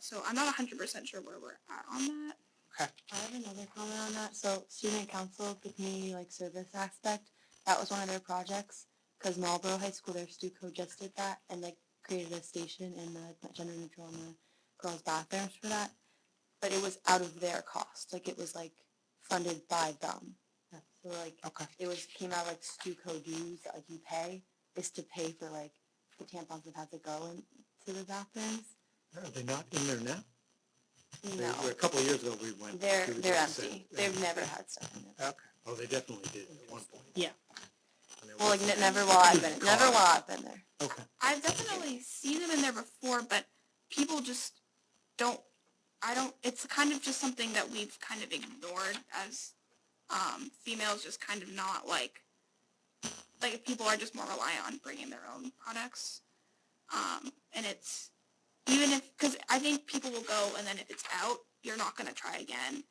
So I'm not 100% sure where we're at on that. I have another comment on that. So student council, the community like service aspect, that was one of their projects. Cause Marlboro High School, their STU code just did that and like created a station in the gender neutral and the girls bathrooms for that. But it was out of their cost. Like it was like funded by them. So like Okay. it was came out of, like STU code dues that like you pay is to pay for like the tampons that have to go into the bathrooms. Are they not in there now? You They know, were- A couple of years ago, we went. they're through they're this empty. and- They've never had stuff in them. Okay, oh, they definitely did at one point. Yeah. And it Well, like wasn't- n- never while I've been never while I've been there. Okay, I've definitely seen them in there before, but people just don't. I don't. It's kind of just something that we've kind of ignored as um, females, just kind of not like. Like people are just more reliant on bringing their own products, um, and it's even if because I think people will go, and then if it's out, you're not gonna try again.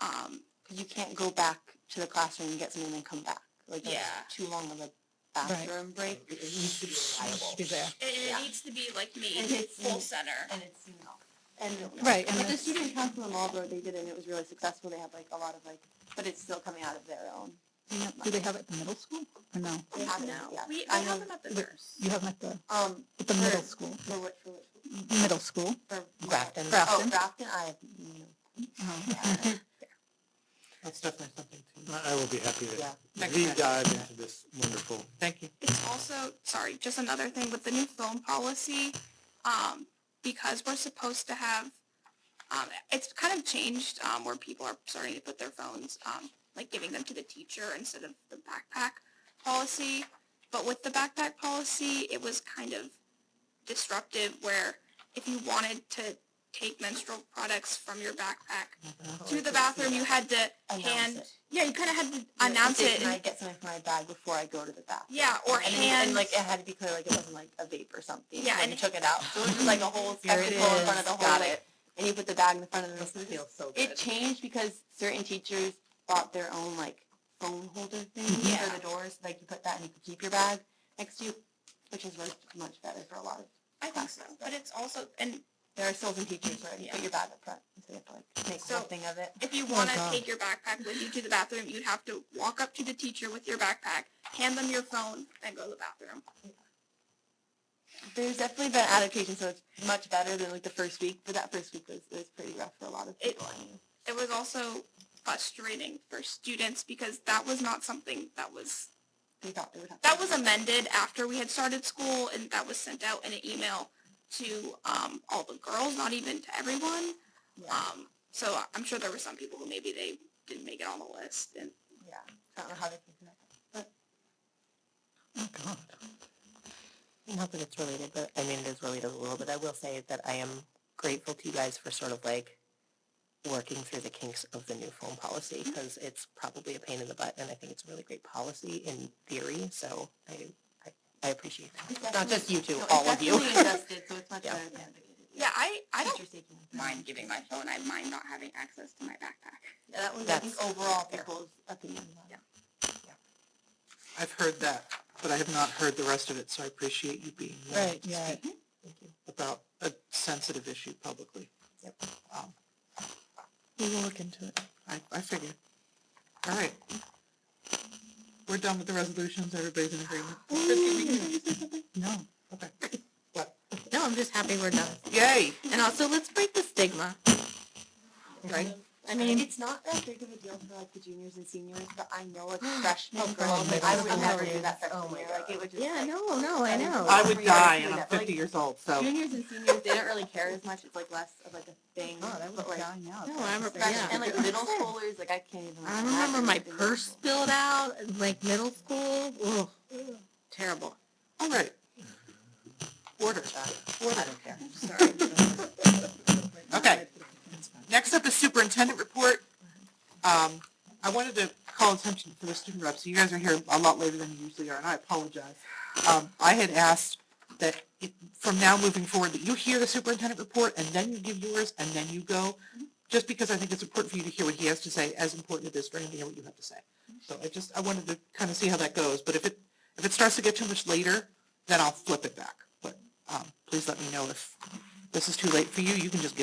Um, Because you can't go back to the classroom and get something and then come back. Like that's Yeah. too long of a bathroom break. it needs to be reliable. Be there. it, it Yeah. needs to be like me, And it's- full center. And it's you know. And Right, and But the that's- student council in Marlboro, they did it and it was really successful. They had like a lot of like but it's still coming out of their own. Do they have it at the middle school or no? They have it, no, yeah. we, we I know- have them at the nurse. You have them at the, Um at the For- middle school, for what for what middle school. for Grafton. Oh Grafton. Grafton, I have no Oh. That's definitely something to, I, I will be happy to Yeah. Thanks, deep Matt. dive into this wonderful, thank you. It's also, sorry, just another thing with the new film policy, um, because we're supposed to have, um, it's kind of changed, um, where people are starting to put their phones, um, like giving them to the teacher instead of the backpack policy. But with the backpack policy, it was kind of disruptive where if you wanted to take menstrual products from your backpack Oh, to the bathroom, you had to announce hand, it. yeah, you kind of had to Like, announce okay, it. Can I and- get something from my bag before I go to the bathroom? Yeah, or and, then- hand. and like it had to be clear, like it wasn't like a vape or something. Yeah, and and- you took it out. So it was just like a whole Here it spectacle in front of is. the whole. Got like, it. And you put the bag in front of This the. feels so good. It changed because certain teachers bought their own like phone holder thing Yeah. for the doors. Like you put that and you could keep your bag next to you, which has worked much better for a lot of. I think so, but it's also, and There are still some teachers where you Yeah. put your bag up front, so you have to like make So- something of it. if you want to God. take your backpack with you to the bathroom, you'd have to walk up to the teacher with your backpack, hand them your phone, and go to the bathroom. There's definitely been adaptation, so it's much better than like the first week. But that first week was was pretty rough for a lot of It- people. I knew. It was also frustrating for students because that was not something that was, they thought they would have. that was amended after we had started school, and that was sent out in an email to, um, all the girls, not even to everyone. Yeah. Um, so I'm sure there were some people who maybe they didn't make it on the list, and Yeah, I don't know how they think about that. Oh, God. Not that it's related, but I mean, it is related a little, but I will say that I am grateful to you guys for sort of like working through the kinks of the new phone policy Mm-hmm. because it's probably a pain in the butt and I think it's a really great policy in theory. So I, I, I appreciate that. It's Not just you two, definitely- no, all of you. It's definitely adjusted, so it's much Yeah. better than it is. yeah, I, I don't Teachers taking it. mind giving my phone. I mind not having access to my backpack. Yeah, that was, I think, That's overall fair. people's opinion. on it. I've heard that, but I have not heard the rest of it, so I appreciate you being willing Right, yeah. about a sensitive issue publicly. Um, We will look into it. I, I figured. All right. We're done with the resolutions, everybody's in agreement. No. No, I'm just happy we're done. Yay! And also, let's break the stigma. Right? I mean, it's not that big of a deal for like the juniors and seniors, but I know a freshman girl, Oh, God, like, Oh, I middle would never do schoolers. that Oh freshman my year, like it would just. Yeah, like, no, no, I know. I would Three die hours to do and I'm that, like- fifty years old, so. Juniors and seniors, they don't really care as much, it's like less of like a thing, Oh, that but was like. dying out. No, I remember- freshmen- yeah. And like middle schoolers, like I can't even. I like, remember imagine my what they do. purse spilled out, like middle school. Ugh, terrible. All right. Order. Order. Sorry. Okay. Next up is superintendent report. Um, I wanted to call attention for the student reps. You guys are here a lot later than you usually are, and I apologize. Um, I had asked that it- from now moving forward, that you hear the superintendent report and then you give yours and then you go, just because I think it's important for you to hear what he has to say, as important it is for him to hear what you have to say. So I just, I wanted to kind of see how that goes, but if it, if it starts to get too much later, then I'll flip it back. But, um, please let me know if this is too late for you. You can just get